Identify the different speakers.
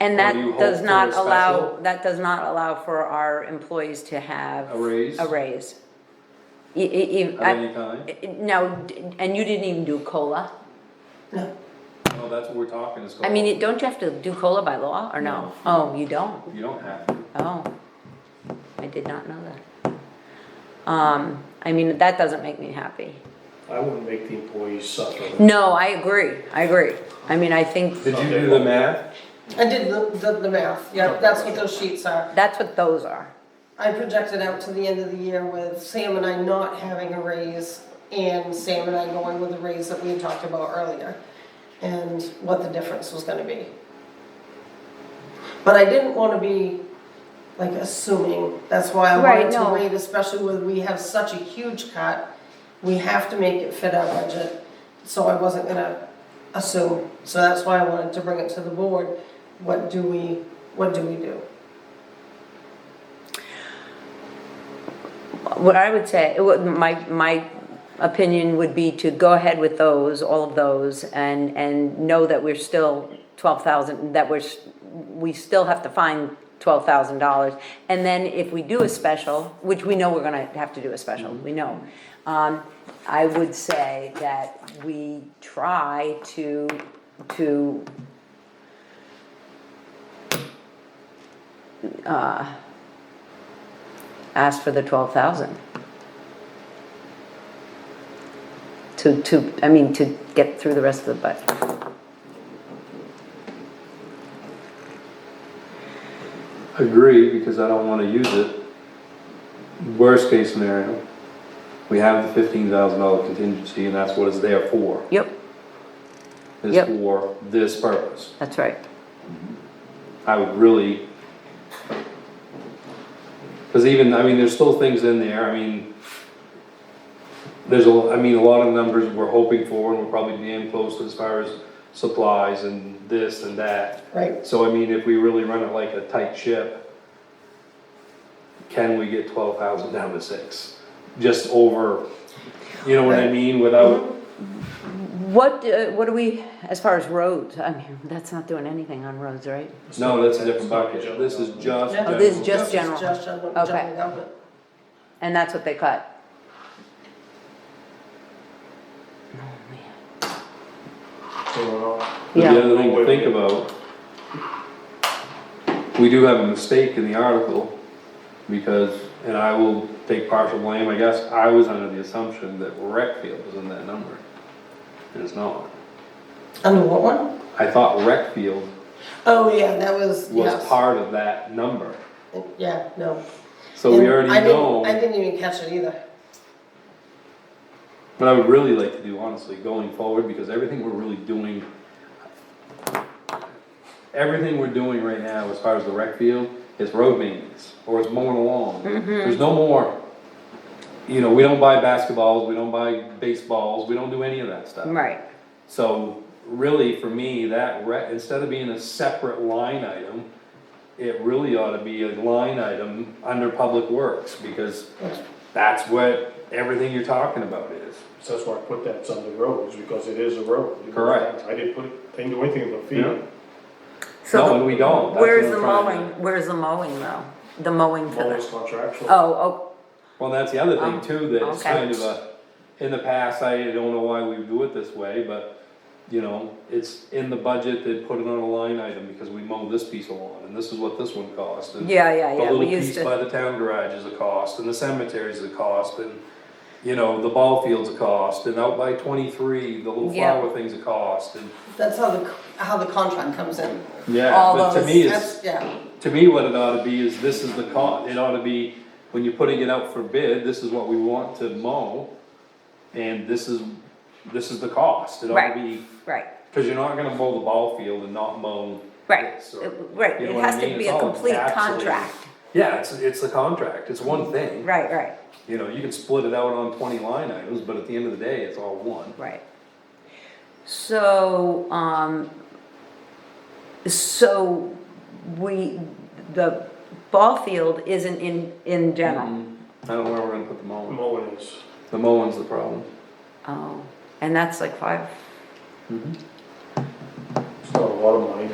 Speaker 1: And
Speaker 2: Or you
Speaker 1: that
Speaker 2: hope
Speaker 1: does
Speaker 2: for
Speaker 1: not
Speaker 2: a special?
Speaker 1: allow, that does not allow for our employees to have.
Speaker 2: A raise?
Speaker 1: A raise. E- e- e-
Speaker 2: Of
Speaker 1: I-
Speaker 2: any kind?
Speaker 1: Now, d- and you didn't even do COLA?
Speaker 2: No, that's what we're talking is.
Speaker 1: I mean, it- don't you have to do COLA by law, or no? Oh, you don't?
Speaker 2: You don't have to.
Speaker 1: Oh, I did not know that. Um, I mean, that doesn't make me happy.
Speaker 3: I wouldn't make the employees suffer.
Speaker 1: No, I agree, I agree. I mean, I think
Speaker 2: Did you do the math?
Speaker 4: I did the, the, the math, yeah, that's what those sheets are.
Speaker 1: that's what those are.
Speaker 4: I projected out to the end of the year with Sam and I not having a raise and Sam and I going with the raise that we had talked about earlier and what the difference was gonna be. But I didn't wanna be like assuming, that's why I
Speaker 1: Right,
Speaker 4: wanted to
Speaker 1: no.
Speaker 4: wait, especially with, we have such a huge cut. We have to make it fit our budget, so I wasn't gonna assume, so that's why I wanted to bring it to the board. What do we, what do we do?
Speaker 1: What I would say, it would- my, my opinion would be to go ahead with those, all of those, and, and know that we're still twelve thousand, that we're, s- we still have to find twelve thousand dollars. And then if we do a special, which we know we're gonna have to do a special, we know. Um, I would say that we try to, to ask for the twelve thousand. To, to, I mean, to get through the rest of the budget.
Speaker 2: Agree, because I don't wanna use it. Worst case scenario, we have the fifteen thousand dollar contingency and that's what it's there for.
Speaker 1: Yep, Yep.
Speaker 2: It's for this purpose.
Speaker 1: that's right.
Speaker 2: I would really. Cause even, I mean, there's still things in there, I mean. There's a, I mean, a lot of numbers we're hoping for and we're probably damn close as far as supplies and this and that.
Speaker 4: Right,
Speaker 2: So I mean, if we really run it like a tight ship, can we get twelve thousand down to six? Just over, you know what I mean, without,
Speaker 1: What, uh, what do we, as far as roads, I mean, that's not doing anything on roads, right?
Speaker 2: no, that's a different bucket, this is just.
Speaker 4: Yeah.
Speaker 1: Oh, this is
Speaker 2: general.
Speaker 1: just general.
Speaker 4: just general,
Speaker 1: Okay.
Speaker 4: general government.
Speaker 1: And that's what they cut.
Speaker 3: uh,
Speaker 4: Mm-hmm.
Speaker 2: But
Speaker 1: Yeah.
Speaker 2: The other thing to think about, we do have a mistake in the article, because, and I will take partial blame, I guess, I was under the assumption that rec field was in that number. And it's not.
Speaker 4: Under what one?
Speaker 2: I thought rec field
Speaker 4: Oh, yeah, that was,
Speaker 2: was
Speaker 4: yes,
Speaker 2: part of that number,
Speaker 4: yeah, no.
Speaker 2: so we
Speaker 4: And
Speaker 2: already
Speaker 4: I didn't- I
Speaker 2: know,
Speaker 4: didn't even catch it either.
Speaker 2: what I would really like to do honestly, going forward, because everything we're really doing, everything we're doing right now as far as the rec field is road maintenance, or it's mowing along. There's no more, you know, we don't buy basketballs, we don't buy baseballs, we don't do any of that stuff.
Speaker 1: Right,
Speaker 2: So really, for me, that re, instead of being a separate line item, it really ought to be a line item under public works, because that's what everything you're talking about is.
Speaker 3: So that's why I put that on the roads, because it is a road.
Speaker 2: Correct.
Speaker 3: I didn't put, didn't do anything but
Speaker 2: Yeah.
Speaker 3: feed.
Speaker 2: No,
Speaker 1: so,
Speaker 2: and we don't. That's
Speaker 1: where's
Speaker 2: what
Speaker 1: the
Speaker 2: I'm trying to-
Speaker 1: mowing, where's the mowing though? The mowing for
Speaker 3: Always
Speaker 1: the,
Speaker 3: contractual.
Speaker 1: oh,
Speaker 2: Well, that's the other
Speaker 1: Um,
Speaker 2: thing too, that it's
Speaker 1: okay.
Speaker 2: kind of a, in the past, I don't know why we do it this way, but, you know, it's in the budget, they put it on a line item, because we mow this piece of lawn, and this is what this one cost,
Speaker 1: oh,
Speaker 2: and
Speaker 1: yeah, yeah,
Speaker 2: The
Speaker 1: yeah,
Speaker 2: little
Speaker 1: we used
Speaker 2: piece by
Speaker 1: to,
Speaker 2: the town garage is a cost, and the cemetery is a cost, and, you know, the ball field's a cost, and out by twenty-three, the little
Speaker 1: Yeah.
Speaker 2: flower thing's a cost, and.
Speaker 4: That's how the, how the contract comes in.
Speaker 2: Yeah.
Speaker 1: All
Speaker 2: But to
Speaker 1: those-
Speaker 2: me, it's,
Speaker 4: That's, yeah,
Speaker 2: to me, what it ought to be is this is the cost, it ought to be, when you're putting it out for bid, this is what we want to mow, and this is, this is the cost, it ought
Speaker 1: Right.
Speaker 2: to be,
Speaker 1: right,
Speaker 2: cause you're not gonna mow the ball field and not mow.
Speaker 1: right,
Speaker 2: this or-
Speaker 1: It- right,
Speaker 2: you know
Speaker 1: it
Speaker 2: what I
Speaker 1: has to
Speaker 2: mean?
Speaker 1: be
Speaker 2: It's
Speaker 1: a
Speaker 2: all
Speaker 1: complete
Speaker 2: encapsulated.
Speaker 1: contract,
Speaker 2: Yeah, it's, it's a contract, it's one thing,
Speaker 1: right, right.
Speaker 2: you know, you can split it out on twenty line items, but at the end of the day, it's all one.
Speaker 1: Right. So, um, so we, the ball field isn't in, in
Speaker 2: Mm-hmm.
Speaker 1: general.
Speaker 2: I don't know where we're gonna put the mowing,
Speaker 3: Mowing is,
Speaker 2: the mowing's the problem.
Speaker 1: Oh, and that's like five
Speaker 3: it's not a lot of money,